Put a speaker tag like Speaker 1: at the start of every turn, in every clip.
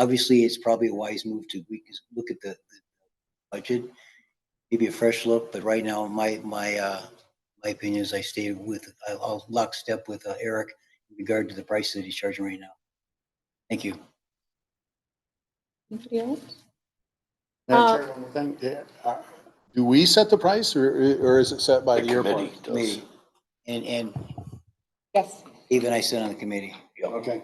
Speaker 1: Obviously, it's probably a wise move to, we can look at the the budget, maybe a fresh look, but right now, my, my, uh, my opinion is I stay with, I'll- I'll lockstep with uh, Eric in regard to the price that he's charging right now. Thank you.
Speaker 2: Anybody else? Uh,
Speaker 3: Madam Chair, one more thing. Yeah, uh, Do we set the price or, or is it set by the airport?
Speaker 4: committee does.
Speaker 1: Committee. And, and
Speaker 2: Yes.
Speaker 1: Dave and I sit on the committee.
Speaker 3: Okay.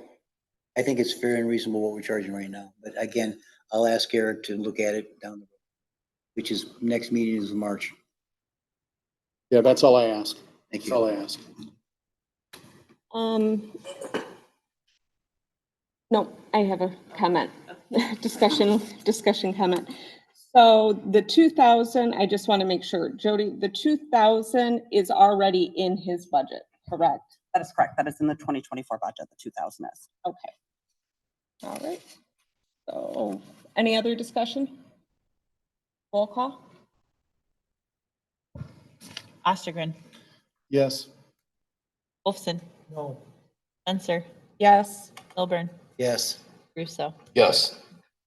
Speaker 1: I think it's fair and reasonable what we're charging right now, but again, I'll ask Eric to look at it down the road, which is, next meeting is March.
Speaker 3: Yeah, that's all I ask.
Speaker 1: Thank
Speaker 3: That's all
Speaker 1: you.
Speaker 3: I ask.
Speaker 2: Um, no, I have a comment, discussion, discussion comment. So the two thousand, I just want to make sure, Jody, the two thousand is already in his budget, correct?
Speaker 5: That is correct. That is in the 2024 budget, the 2,000 is.
Speaker 2: Okay. All right. So, any other discussion? Roll call?
Speaker 6: Ostergren,
Speaker 3: Yes.
Speaker 6: Wolfson. No. Censor,
Speaker 2: Yes.
Speaker 6: Milburn,
Speaker 1: Yes,
Speaker 6: Russo.
Speaker 4: Yes,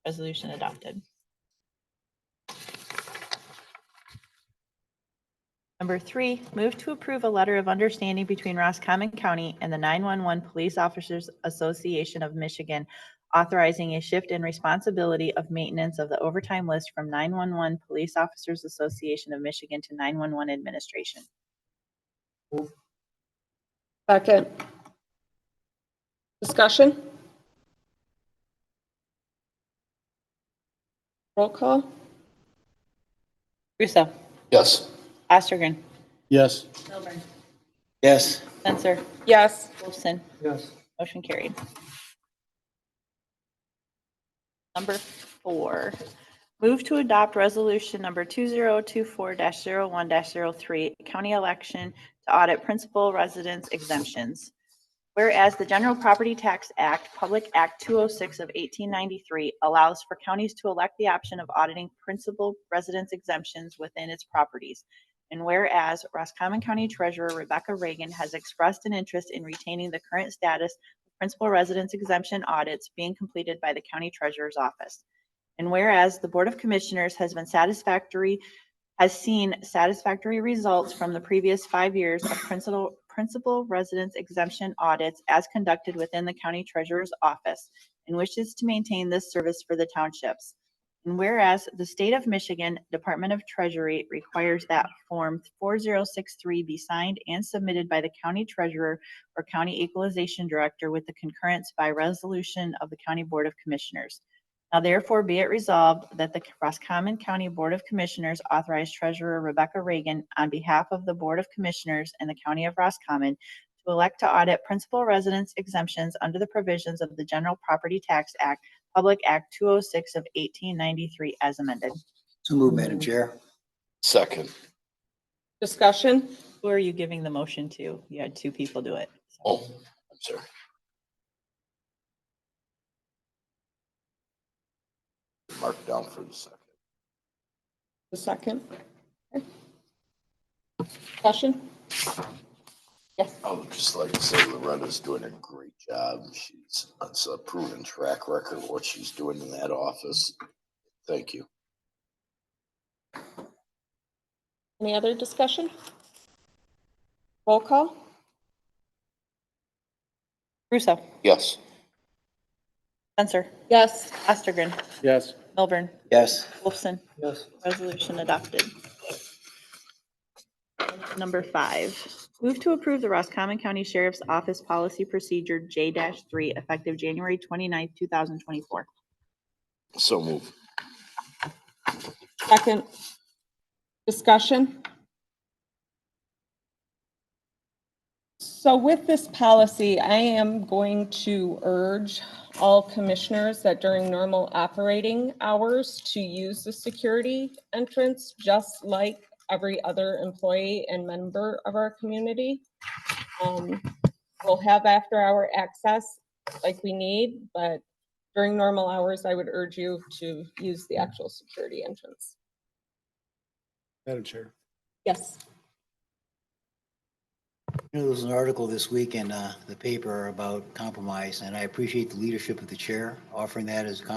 Speaker 6: Resolution adopted. Number three, move to approve a letter of understanding between Roscommon County and the 911 Police Officers Association of Michigan authorizing a shift in responsibility of maintenance of the overtime list from 911 Police Officers Association of Michigan to 911 Administration.
Speaker 2: Second. Discussion? Roll call?
Speaker 6: Russo,
Speaker 4: yes,
Speaker 6: Ostergren,
Speaker 3: Yes.
Speaker 6: Milburn,
Speaker 1: yes,
Speaker 6: Censor,
Speaker 2: Yes.
Speaker 6: Wolfson.
Speaker 3: Yes.
Speaker 6: Motion carried. Number four, move to adopt resolution number two zero two four dash zero one dash zero three, county election to audit principal residence exemptions. Whereas the General Property Tax Act, Public Act two oh six of eighteen ninety-three allows for counties to elect the option of auditing principal residence exemptions within its properties. And whereas Roscommon County Treasurer Rebecca Reagan has expressed an interest in retaining the current status of principal residence exemption audits being completed by the county treasurer's office. And whereas the Board of Commissioners has been satisfactory, has seen satisfactory results from the previous five years of principal, principal residence exemption audits as conducted within the county treasurer's office and wishes to maintain this service for the townships. And whereas the state of Michigan Department of Treasury requires that Form 4063 be signed and submitted by the county treasurer or county equalization director with the concurrence by resolution of the County Board of Commissioners. Now therefore be it resolved that the Roscommon County Board of Commissioners authorize Treasurer Rebecca Reagan on behalf of the Board of Commissioners and the County of Roscommon to elect to audit principal residence exemptions under the provisions of the General Property Tax Act Public Act 206 of 1893 as amended.
Speaker 1: so move, Madam Chair.
Speaker 4: second.
Speaker 2: Discussion?
Speaker 6: Who are you giving the motion to? You had two people do it. so.
Speaker 4: Oh, I'm sorry. Mark down for the second.
Speaker 2: The second. Discussion? Yes.
Speaker 4: I would just like to say Loretta's doing a great job. She's, it's a proven track record of what she's doing in that office. Thank you.
Speaker 2: Any other discussion? Roll call?
Speaker 6: Russo,
Speaker 4: Yes,
Speaker 6: Censor,
Speaker 2: Yes.
Speaker 6: Ostergren,
Speaker 3: Yes.
Speaker 6: Milburn,
Speaker 1: Yes,
Speaker 6: Wolfson.
Speaker 3: Yes.
Speaker 6: Resolution adopted. Number five, move to approve the Roscommon County Sheriff's Office Policy Procedure J-3 effective January 29th, 2024.
Speaker 4: so move.
Speaker 2: Second. Discussion? So with this policy, I am going to urge all commissioners that during normal operating hours to use the security entrance, just like every other employee and member of our community. Um, We'll have after-hour access like we need, but during normal hours, I would urge you to use the actual security entrance.
Speaker 3: Madam Chair.
Speaker 2: Yes.
Speaker 1: You know, there was an article this week in uh, the paper about compromise, and I appreciate the leadership of the chair offering that as a compromise